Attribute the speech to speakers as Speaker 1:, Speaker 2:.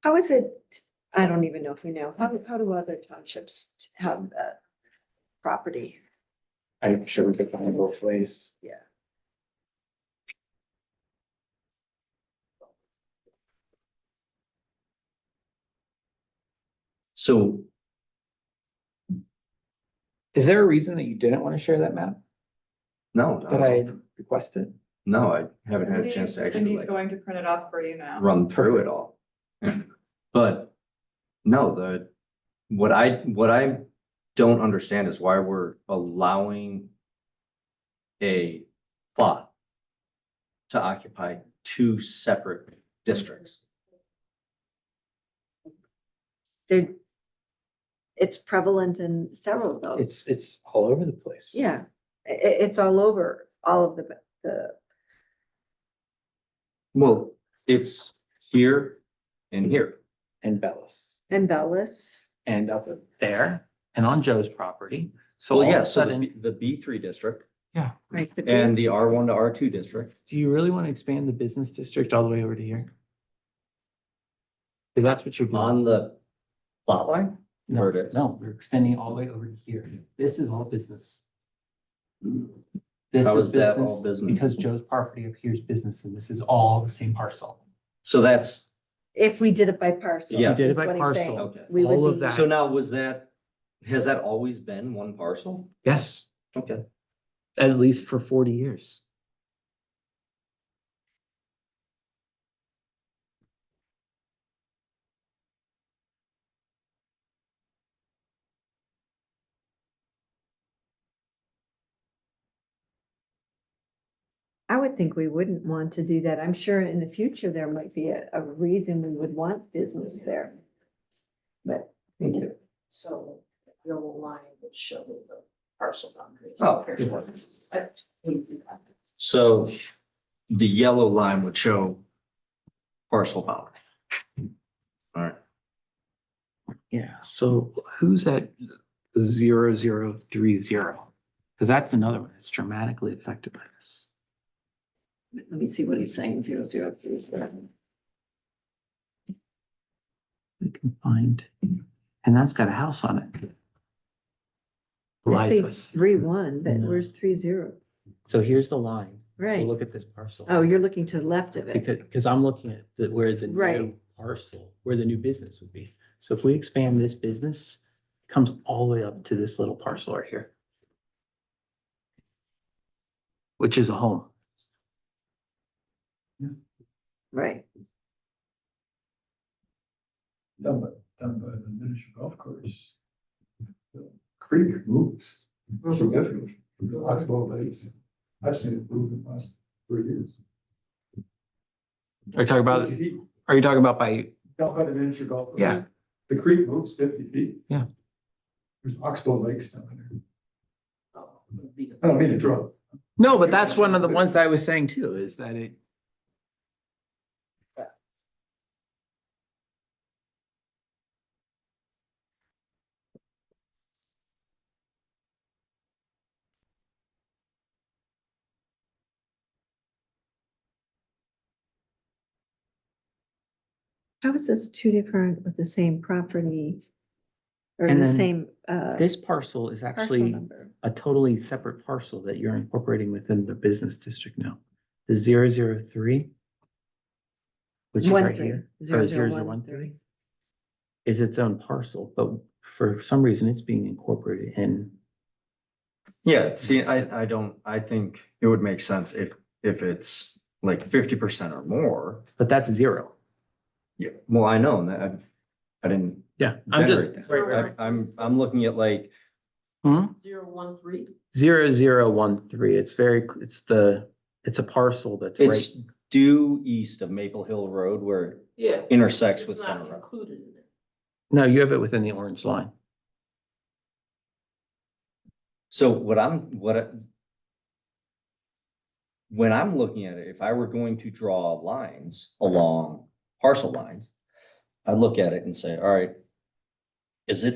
Speaker 1: How is it, I don't even know if we know, how, do- how do other townships have that property?
Speaker 2: I'm sure we could find both ways.
Speaker 1: Yeah.
Speaker 3: So
Speaker 2: Is there a reason that you didn't want to share that map
Speaker 3: no,
Speaker 2: that
Speaker 3: no,
Speaker 2: I requested?
Speaker 3: no, I haven't had a chance to actually
Speaker 4: Cindy's
Speaker 3: like
Speaker 4: going to print it off for you now.
Speaker 3: run through it all. But no, the, what I, what I don't understand is why we're allowing a plot to occupy two separate districts.
Speaker 1: They're, it's prevalent in several of those.
Speaker 2: It's, it's all over the place.
Speaker 1: Yeah, i- i- it's all over, all of the, the,
Speaker 3: Well, it's here and here.
Speaker 2: And Bellis
Speaker 1: and Bellis.
Speaker 2: and up there and on Joe's property. So
Speaker 3: Well,
Speaker 2: all of
Speaker 3: yeah,
Speaker 2: a
Speaker 3: so the,
Speaker 2: sudden,
Speaker 3: B- the B three district
Speaker 1: right, the-
Speaker 3: and the R one to R two district.
Speaker 2: do you really want to expand the business district all the way over to here? Because that's what you're doing.
Speaker 3: On the plot line?
Speaker 2: No,
Speaker 3: Where it is.
Speaker 2: no, we're extending all the way over to here. This is all business. This
Speaker 3: How
Speaker 2: is
Speaker 3: is that all
Speaker 2: business
Speaker 3: business?
Speaker 2: because Joe's property up here is business and this is all the same parcel.
Speaker 3: So that's,
Speaker 1: If we did it by parcel.
Speaker 3: Yeah.
Speaker 2: We did it
Speaker 1: is
Speaker 2: by
Speaker 1: what he's saying.
Speaker 2: parcel.
Speaker 3: okay.
Speaker 1: We
Speaker 2: All
Speaker 1: would
Speaker 2: of
Speaker 1: be,
Speaker 2: that.
Speaker 3: So now was that, has that always been one parcel?
Speaker 2: Yes.
Speaker 3: Okay.
Speaker 2: at least for forty years.
Speaker 1: I would think we wouldn't want to do that. I'm sure in the future, there might be a, a reason we would want business there. But, thank you.
Speaker 5: So the yellow line will show the parcel boundaries.
Speaker 3: Oh, good So the yellow line would show parcel boundary. All right,
Speaker 2: Yeah, so who's at zero, zero, three, zero? Because that's another one that's dramatically affected by this.
Speaker 5: Let me see what he's saying, zero, zero, three, zero.
Speaker 2: We can find, and that's got a house on it.
Speaker 1: I say
Speaker 2: Liza.
Speaker 1: three one, but
Speaker 2: No.
Speaker 1: where's three zero?
Speaker 2: So here's the line. So
Speaker 1: Right.
Speaker 2: Look at this parcel.
Speaker 1: Oh, you're looking to the left of it.
Speaker 2: Because, because I'm looking at the, where the new
Speaker 1: Right.
Speaker 2: parcel, where the new business would be. So if we expand this business, it comes all the way up to this little parcel right here. Which is a home.
Speaker 1: Right.
Speaker 6: down by, down by the miniature golf course. the Creek moves significantly from the last twelve days. I've seen it move in the last three years.
Speaker 2: Are you talking about,
Speaker 6: 50 feet,
Speaker 2: are you talking about by,
Speaker 6: Down by the miniature golf. course.
Speaker 2: Yeah.
Speaker 6: The creek moves fifty feet.
Speaker 2: Yeah.
Speaker 6: There's oxbow lakes down there. I don't mean to throw.
Speaker 2: no, but that's one of the ones that I was saying too, is that it.
Speaker 1: How is this two different with the same property? Or
Speaker 2: And
Speaker 1: the
Speaker 2: then
Speaker 1: same, uh,
Speaker 2: This parcel is
Speaker 1: parcel
Speaker 2: actually
Speaker 1: number?
Speaker 2: a totally separate parcel that you're incorporating within the business district now. The zero zero three. Which is
Speaker 1: One
Speaker 2: right
Speaker 1: three,
Speaker 2: here. Oh,
Speaker 1: zero,
Speaker 2: or
Speaker 1: zero,
Speaker 2: 0013.
Speaker 1: three.
Speaker 2: is its own parcel, but for some reason it's being incorporated in.
Speaker 3: yeah, see, I, I don't, I think it would make sense if, if it's like fifty percent or more.
Speaker 2: But that's zero.
Speaker 3: Yeah. Well, I know, and I, I didn't,
Speaker 2: Yeah, I'm just.
Speaker 3: Generate
Speaker 5: Right,
Speaker 3: I, I'm, I'm looking at like,
Speaker 2: Hmm?
Speaker 5: Zero, one, three.
Speaker 2: Zero, zero, one, three. It's very, it's the, it's a parcel that's right.
Speaker 3: it's due east of Maple Hill Road where it
Speaker 5: Yeah.
Speaker 3: intersects
Speaker 5: It's
Speaker 3: with
Speaker 5: not
Speaker 3: Center Road.
Speaker 5: Included in it.
Speaker 2: No, you have it within the orange line.
Speaker 3: So what I'm, what I- when I'm looking at it, if I were going to draw lines along parcel lines, I'd look at it and say, all right, is it